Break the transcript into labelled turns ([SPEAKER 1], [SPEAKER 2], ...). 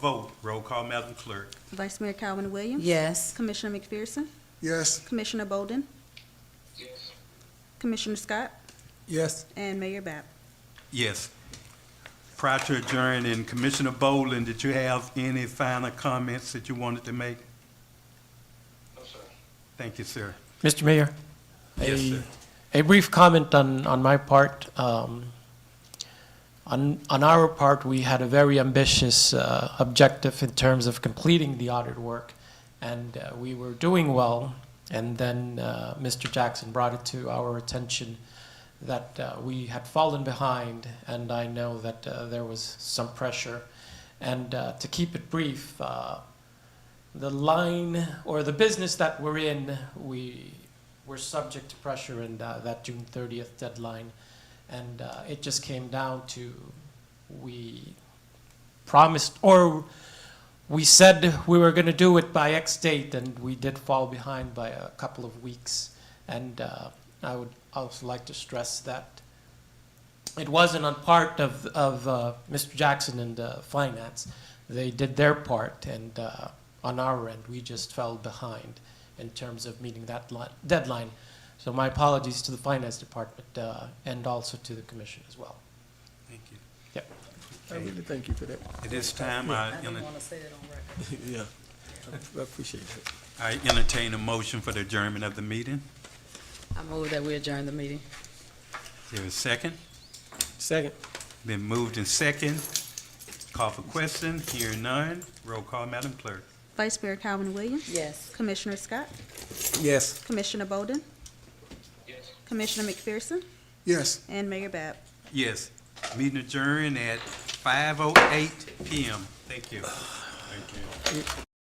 [SPEAKER 1] vote. Roll call, Madam Clerk.
[SPEAKER 2] Vice Mayor Calvin Williams?
[SPEAKER 3] Yes.
[SPEAKER 2] Commissioner McPherson?
[SPEAKER 4] Yes.
[SPEAKER 2] Commissioner Bolden?
[SPEAKER 5] yes,
[SPEAKER 2] Commissioner Scott?
[SPEAKER 4] Yes.
[SPEAKER 2] And Mayor Bab.
[SPEAKER 1] Yes. Prior to adjourning, Commissioner Boland, did you have any final comments that you wanted to make?
[SPEAKER 5] no, sir.
[SPEAKER 1] Thank you, sir.
[SPEAKER 6] Mr. Mayor?
[SPEAKER 1] Yes,
[SPEAKER 6] a-
[SPEAKER 1] sir.
[SPEAKER 6] A brief comment on, on my part. Um, On, on our part, we had a very ambitious uh, objective in terms of completing the audit work, and uh, we were doing well. And then uh, Mr. Jackson brought it to our attention that uh, we had fallen behind, and I know that uh, there was some pressure. And uh, to keep it brief, uh, the line or the business that we're in, we were subject to pressure in uh, that June 30th deadline. And uh, it just came down to we promised or we said we were going to do it by X date, and we did fall behind by a couple of weeks. And uh, I would also like to stress that it wasn't on part of, of uh, Mr. Jackson and uh, finance. They did their part, and uh, on our end, we just fell behind in terms of meeting that li- deadline. So my apologies to the finance department uh, and also to the commission as well.
[SPEAKER 1] Thank you.
[SPEAKER 6] Yep.
[SPEAKER 4] I really thank you for that.
[SPEAKER 1] At this time, I enter-
[SPEAKER 3] to say it on record.
[SPEAKER 4] Yeah. I appreciate that.
[SPEAKER 1] I entertain a motion for the adjournment of the meeting.
[SPEAKER 3] I move that we adjourn the meeting.
[SPEAKER 1] Is there a second?
[SPEAKER 4] Second.
[SPEAKER 1] Been moved and second. Call for question, hearing none. Roll call, Madam Clerk.
[SPEAKER 2] Vice Mayor Calvin Williams?
[SPEAKER 3] Yes.
[SPEAKER 2] Commissioner Scott?
[SPEAKER 4] Yes.
[SPEAKER 2] Commissioner Bolden?
[SPEAKER 5] Yes.
[SPEAKER 2] Commissioner McPherson?
[SPEAKER 4] Yes.
[SPEAKER 2] And Mayor Bab.
[SPEAKER 1] Yes, meeting oh adjourned at 5:08 PM. Thank you. Thank you.